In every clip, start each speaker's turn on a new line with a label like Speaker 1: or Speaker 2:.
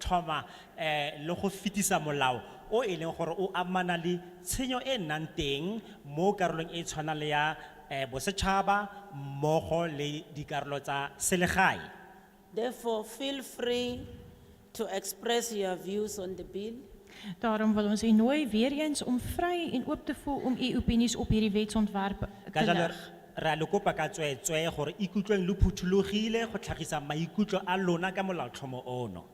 Speaker 1: thoma eh le go fitisa molao o e leng gore o amana le tshenyo e nnang teng mo karolong e tshwana le ya eh bosetšhaba mmogo le dikarolo tsa selegae
Speaker 2: Therefore, feel free to express your views on the bill.
Speaker 3: Daarom wil ons u nooi weer eens om vry en oop te voel om u opinies op hierdie wetsontwerp
Speaker 1: ka
Speaker 3: te
Speaker 1: jalo
Speaker 3: lig.
Speaker 1: re a le kopa ka tsweetswe gore ikutlweng lo phuthulogile go tlhagisa maikutlo a lona ka molaotlhomo ono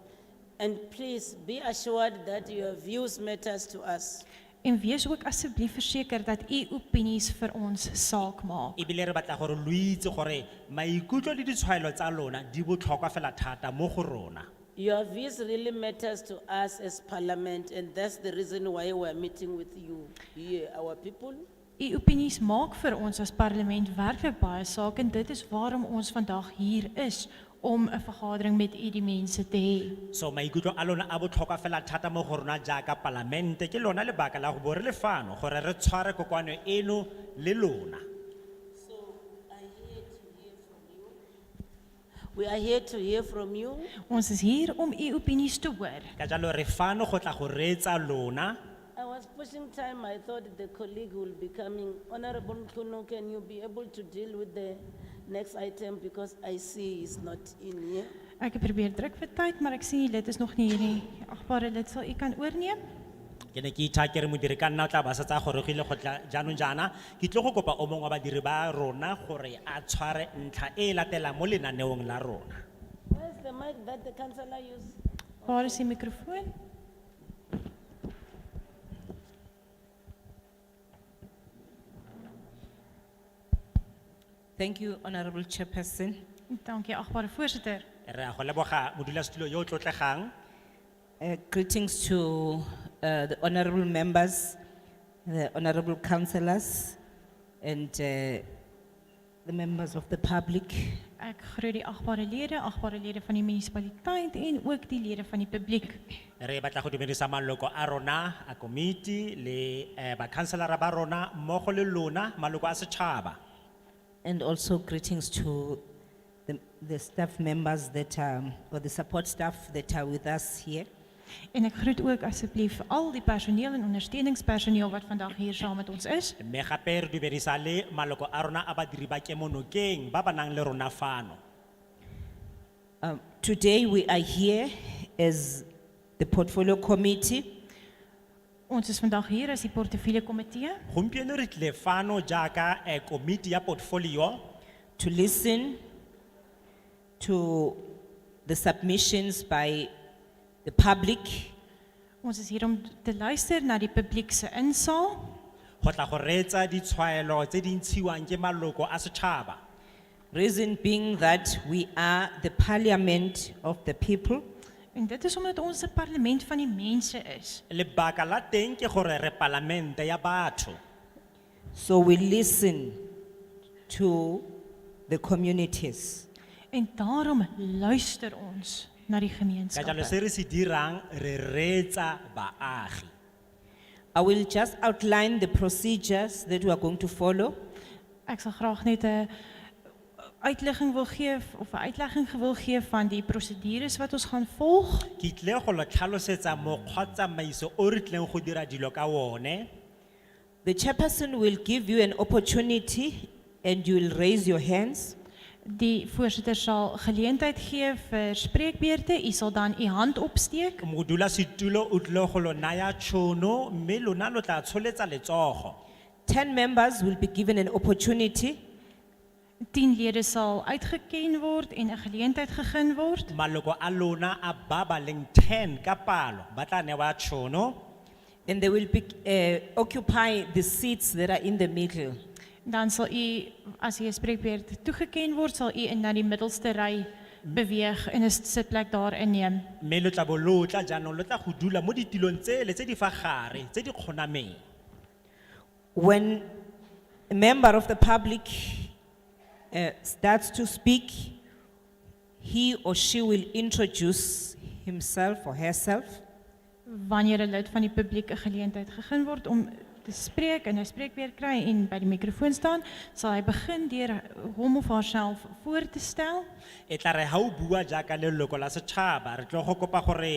Speaker 2: And please be assured that your views matters to us.
Speaker 3: En wees ook asseblief verseker dat u opinies vir ons saak maak.
Speaker 1: ebile re batla gore lo itse gore maikutlo le ditshwaelo tsa lona di botlhokwa fela thata mo go rona
Speaker 2: Your views really matters to us as parliament and that's the reason why we're meeting with you, here, our people.
Speaker 3: U opinies maak vir ons as parlement werklik baie saak en dit is waarom ons vandag hier is om 'n vergadering met u die mense te hê.
Speaker 1: so maikutlo a lona a botlhokwa fela thata mo go rona jaaka palamente ke lona lebaka la go bo re le fano gore re tshware kokoano eno le lona
Speaker 2: We are here to hear from you.
Speaker 3: Ons is hier om u opinies te hoor.
Speaker 1: ka jalo re fano go tla go reetsa lona
Speaker 2: I was pushing time, I thought the colleague will be coming. Honorable Mkunu, can you be able to deal with the next item because I see he's not in here?
Speaker 3: Ek het probeer druk vir tyd, maar ek sien die lid is nog nie hier nie. Agbare lid, sal u kan oorneem?
Speaker 1: ke ne ke itha ke re modiri ka nna o tla ba sa tsaya gorogile go tla jaanong jaana ke tlo go kopa o mongwe wa badiri ba rona gore a tshware ntlha e e latelang mo lenaneong la rona
Speaker 2: Where's the mic that the councillor used?
Speaker 3: Waar is die mikrofoon?
Speaker 4: Thank you, Honorable Chairperson.
Speaker 3: Dankie agbare voorsitter.
Speaker 1: re a go leboga modulasetulo yo o tlotlegang
Speaker 4: Uh, Greetings to uh, the honorable members, the honorable councillors, and uh, the members of the public.
Speaker 3: Ek groet die agbare lede, agbare lede van die munisipaliteit en ook die lede van die publiek.
Speaker 1: re batla go dumedisa maloko a rona a komiti le eh, bakhanselara ba rona mmogo le lona maloko a setšhaba
Speaker 4: And also greetings to the the staff members that are, or the support staff that are with us here.
Speaker 3: En ek groet ook asseblief al die personeel en ondersteuningspersoneel wat vandag hier saam met ons is
Speaker 1: mme gape re dumedisa le maloko a rona a badiri ba kemonokeng ba ba nang le rona fano
Speaker 4: Um, Today, we are here as the Portfolio Committee
Speaker 3: Ons is vandag hier as die portefeulje komitee
Speaker 1: gompieno re tlile fano jaaka eh, komiti ya portfolio
Speaker 4: to listen to the submissions by the public
Speaker 3: Ons is hier om te luister na die publiek se insaal
Speaker 1: go tla go reetsa ditshwaelo tse di ntshiwang ke maloko a setšhaba
Speaker 4: Reason being that we are the parliament of the people
Speaker 3: en dit is omdat ons 'n parlement van die mense is.
Speaker 1: lebaka la teng ke gore re palamente ya batho
Speaker 4: so we listen to the communities
Speaker 3: En daarom luister ons na die
Speaker 1: ka jalo se
Speaker 3: gemeenskappe.
Speaker 1: re se dirang re reetsa baagi
Speaker 4: I will just outline the procedures that we are going to follow
Speaker 3: Ek sal graag net 'n uitlegging wil gee of 'n uitlegging wil gee van die prosedures wat ons gaan volg
Speaker 1: ke tlile go lo tlhalosetsa mokgwa tsamaiso o re tlileng go dira dilo ka one
Speaker 4: the chairperson will give you an opportunity and you will raise your hands
Speaker 3: Die voorsitter sal geleentheid gee vir spreekbeurte. U sal dan u hand opsteek.
Speaker 1: modulasetulo o tlile go lo naya tšhono mme lona lo tla tsholetsa letsogo
Speaker 4: 10 members will be given an opportunity
Speaker 3: 10 lede sal uitgeken word en 'n geleentheid gegee word.
Speaker 1: maloko a lona a ba ba leng 10 ka palo ba tla newa tšhono
Speaker 4: and they will be, uh, occupy the seats that are in the middle
Speaker 3: Dan sal u as u 'n spreekbeurt toegeken word, sal u in na die middelste ry beweeg en 'n sitplek daar inneem.
Speaker 1: mme lo tla bo lo tla jaanong lo tla go dula mo ditilong tsele tse di fa gare tse di kgonameng
Speaker 4: When a member of the public uh, starts to speak, he or she will introduce himself or herself.
Speaker 3: Wanneer 'n lid van die publiek 'n geleentheid gegee word om te spreek en 'n spreekbeurt kry en by die mikrofoon staan, sal hy begin deur hom of haarself voor te stel.
Speaker 1: e tla re ga o bua jaaka leloko la setšhaba re tlo go kopa gore